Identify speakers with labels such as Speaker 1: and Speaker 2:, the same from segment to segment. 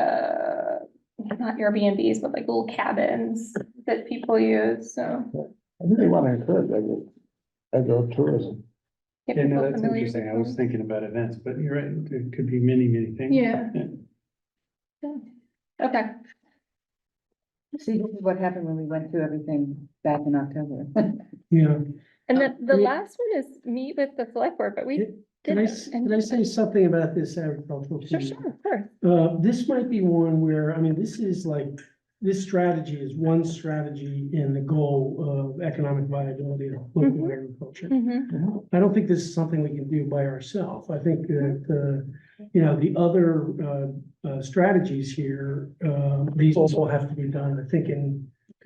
Speaker 1: uh, not Airbnbs, but like little cabins that people use, so.
Speaker 2: I really want to encourage agro, agro-tourism.
Speaker 1: get
Speaker 3: Yeah, no,
Speaker 1: people
Speaker 3: that's
Speaker 1: familiar
Speaker 3: interesting. I
Speaker 1: with
Speaker 3: was
Speaker 1: them.
Speaker 3: thinking about events, but you're right, it could be many, many things.
Speaker 1: Yeah. Okay,
Speaker 4: See, this is what happened when we went through everything back in October.
Speaker 3: Yeah.
Speaker 1: and
Speaker 5: Uh,
Speaker 1: then the
Speaker 5: we-
Speaker 1: last one is meet with the select board, but we
Speaker 5: Yeah, Can I, s-
Speaker 1: didn't.
Speaker 5: can I say something about this agricultural?
Speaker 1: Sure,
Speaker 5: community?
Speaker 1: sure, of course.
Speaker 5: Uh, this might be one where, I mean, this is like, this strategy is one strategy in the goal of economic viability of local agriculture.
Speaker 1: Mhm.
Speaker 5: I don't think this is something we can do by ourselves. I think that, uh, you know, the other, uh, uh, strategies here, uh, these also have to be done, I think, in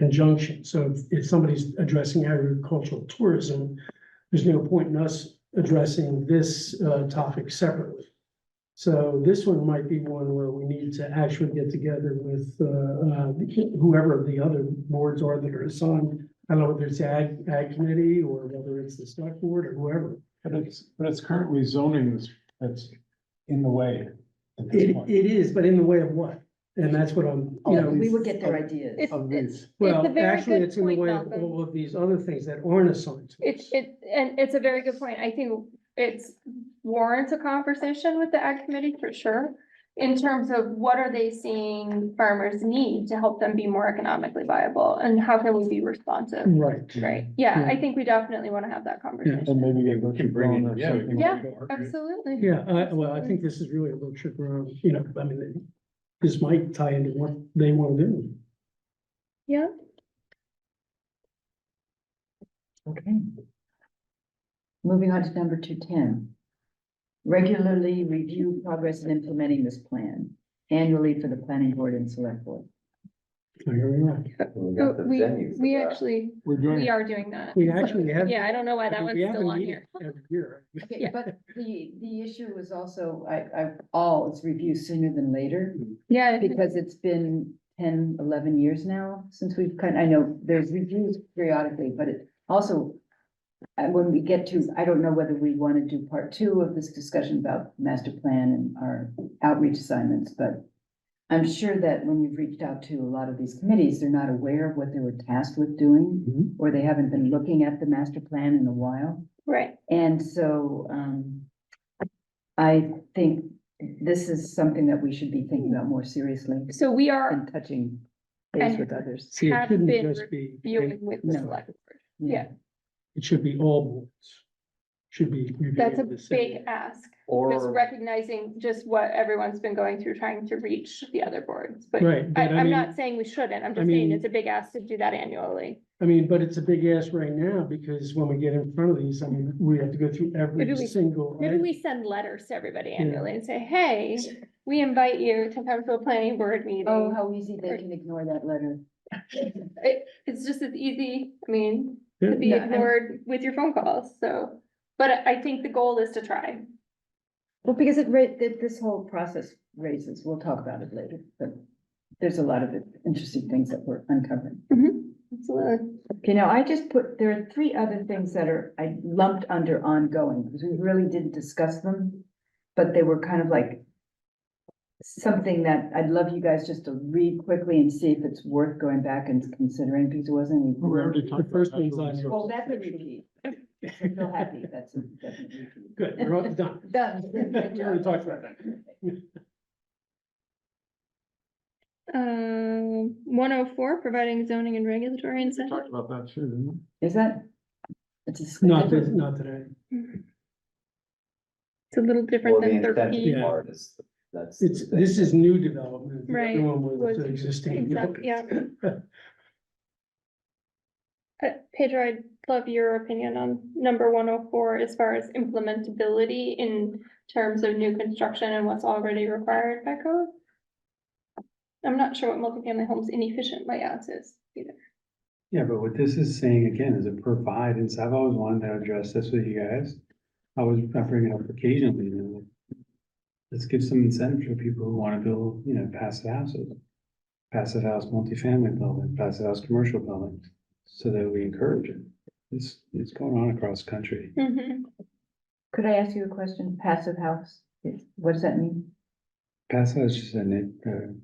Speaker 5: conjunction. So if- if somebody's addressing agricultural tourism, there's no point in us addressing this, uh, topic separately. So this one might be one where we need to actually get together with, uh, uh, whoever the other boards are that are assigned I don't know whether it's ag, ag committee or whether it's the select board or whoever.
Speaker 2: But it's, but it's currently zoning that's, that's in the way at this
Speaker 5: It,
Speaker 2: point
Speaker 5: it is, but in the way of what? And that's what I'm, you know,
Speaker 4: We would get their ideas.
Speaker 1: It's,
Speaker 2: of
Speaker 1: it's,
Speaker 2: these.
Speaker 1: it's Oh, a
Speaker 5: well,
Speaker 1: very
Speaker 5: actually,
Speaker 1: good
Speaker 5: it's in the
Speaker 1: point,
Speaker 5: way of
Speaker 1: Malcolm.
Speaker 5: all of these other things that aren't assigned to
Speaker 1: It's,
Speaker 5: us.
Speaker 1: it, and it's a very good point. I think it's warrants a conversation with the ag committee for sure. In terms of what are they seeing farmers need to help them be more economically viable and how can we be responsive?
Speaker 5: Right.
Speaker 1: Right, yeah, I
Speaker 5: Yeah.
Speaker 1: think we definitely want to have that
Speaker 2: And
Speaker 1: conversation.
Speaker 2: maybe get.
Speaker 3: We can bring
Speaker 2: Rotary
Speaker 3: it,
Speaker 2: or
Speaker 3: yeah. we
Speaker 2: something.
Speaker 3: can
Speaker 1: Yeah,
Speaker 3: bring it.
Speaker 1: Absolutely.
Speaker 5: Yeah, I, well, I think this is really a little trip around, you know, I mean, this might tie into what they want to do.
Speaker 1: Yeah,
Speaker 4: Okay. Moving on to number two ten. Regularly review progress in implementing this plan annually for the planning board and select board.
Speaker 5: So here we are.
Speaker 6: We
Speaker 1: Oh,
Speaker 6: got the
Speaker 1: we,
Speaker 6: venue for
Speaker 1: we
Speaker 6: that.
Speaker 1: actually,
Speaker 2: We're doing,
Speaker 1: we
Speaker 2: it.
Speaker 1: are doing that.
Speaker 5: We actually have.
Speaker 1: Yeah, I don't know why that
Speaker 5: we
Speaker 1: one's
Speaker 5: have a
Speaker 1: still on
Speaker 5: meeting
Speaker 1: here.
Speaker 5: Every year.
Speaker 4: Okay,
Speaker 1: Yeah.
Speaker 4: but the, the issue was also, I, I, all is review sooner than later.
Speaker 1: Yeah,
Speaker 4: Because it's been 10, 11 years now since we've kind, I know there's reviews periodically, but it also. And when we get to, I don't know whether we want to do part two of this discussion about master plan and our outreach assignments, but. I'm sure that when you've reached out to a lot of these committees, they're not aware of what they were tasked with doing.
Speaker 5: Mhm.
Speaker 4: Or they haven't been looking at the master plan in a while.
Speaker 1: right,
Speaker 4: And so, um, I think this is something that we should be thinking about more seriously
Speaker 1: so we are
Speaker 4: and touching base
Speaker 1: And-
Speaker 4: with others.
Speaker 5: See, it
Speaker 1: Have
Speaker 5: shouldn't
Speaker 1: been
Speaker 5: just be.
Speaker 1: viewing with the
Speaker 4: No.
Speaker 1: select board. Yeah.
Speaker 5: It should be all boards. Should be. reviewing
Speaker 1: That's a
Speaker 5: the same.
Speaker 1: big ask. Just
Speaker 6: Or,
Speaker 1: recognizing just what everyone's been going through, trying to reach the other boards, but
Speaker 5: Right,
Speaker 1: I,
Speaker 5: but I
Speaker 1: I'm
Speaker 5: mean,
Speaker 1: not saying we shouldn't, I'm
Speaker 5: I
Speaker 1: just saying
Speaker 5: mean-
Speaker 1: it's a big ask to do that annually.
Speaker 5: I mean, but it's a big ask right now because when we get in front of these, I mean, we have to go through
Speaker 1: Maybe
Speaker 5: every
Speaker 1: we-
Speaker 5: single.
Speaker 1: Maybe
Speaker 5: item.
Speaker 1: we send letters to everybody
Speaker 5: Yeah.
Speaker 1: annually and say, hey, we invite you to come to a planning board
Speaker 4: Oh,
Speaker 1: meeting.
Speaker 4: how easy they can ignore that letter.
Speaker 1: It, it's just as easy, I mean, to
Speaker 5: Yeah.
Speaker 1: be
Speaker 4: No, I'm-
Speaker 1: ignored with your phone calls, so, but I I think the goal is to try.
Speaker 4: Well, because it, ra- that this whole process raises, we'll talk about it later, but there's a lot of interesting things that we're uncovering.
Speaker 1: Absolutely.
Speaker 4: Okay, now I just put, there are three other things that are, I lumped under ongoing, because we really didn't discuss them. But they were kind of like. Something that I'd love you guys just to read quickly and see if it's worth going back and considering, because it wasn't.
Speaker 2: we already talked. about
Speaker 5: first one's
Speaker 2: natural
Speaker 5: on your-
Speaker 4: Well, that's a repeat.
Speaker 5: Oh,
Speaker 4: I feel happy, that's a that's a repeat.
Speaker 5: Good, we're all done.
Speaker 4: Done.
Speaker 5: We already talked about that.
Speaker 1: Um, one oh four, providing zoning and regulatory
Speaker 2: We
Speaker 1: incentives.
Speaker 2: Talked about that too, didn't we?
Speaker 4: Is that? It's a.
Speaker 5: Not this, not today.
Speaker 1: It's a little
Speaker 6: well,
Speaker 1: different
Speaker 6: the
Speaker 1: than
Speaker 6: incentive
Speaker 1: thirteen.
Speaker 5: Yeah.
Speaker 6: part is, that's. the
Speaker 5: It's,
Speaker 6: thing.
Speaker 5: this is new development. The other
Speaker 1: Right,
Speaker 5: one was
Speaker 1: was-
Speaker 5: the existing.
Speaker 1: Exact- yeah. Uh, Pedro, I'd love your opinion on number one oh four as far as implementability in terms of new construction and what's already required by code. I'm not sure what multifamily homes inefficient layouts is either.
Speaker 3: Yeah, but what this is saying again is a provide, and so I've always wanted to address this with you guys. I was, I bring it up occasionally, you know. Let's give some incentive for people who wanna build, you know, passive houses. Passive house multifamily building, passive house commercial building, so that we encourage it. It's, it's going on across the country.
Speaker 4: Could I ask you a question? Passive house, what does that mean?
Speaker 3: Passive house is just a, na- uh,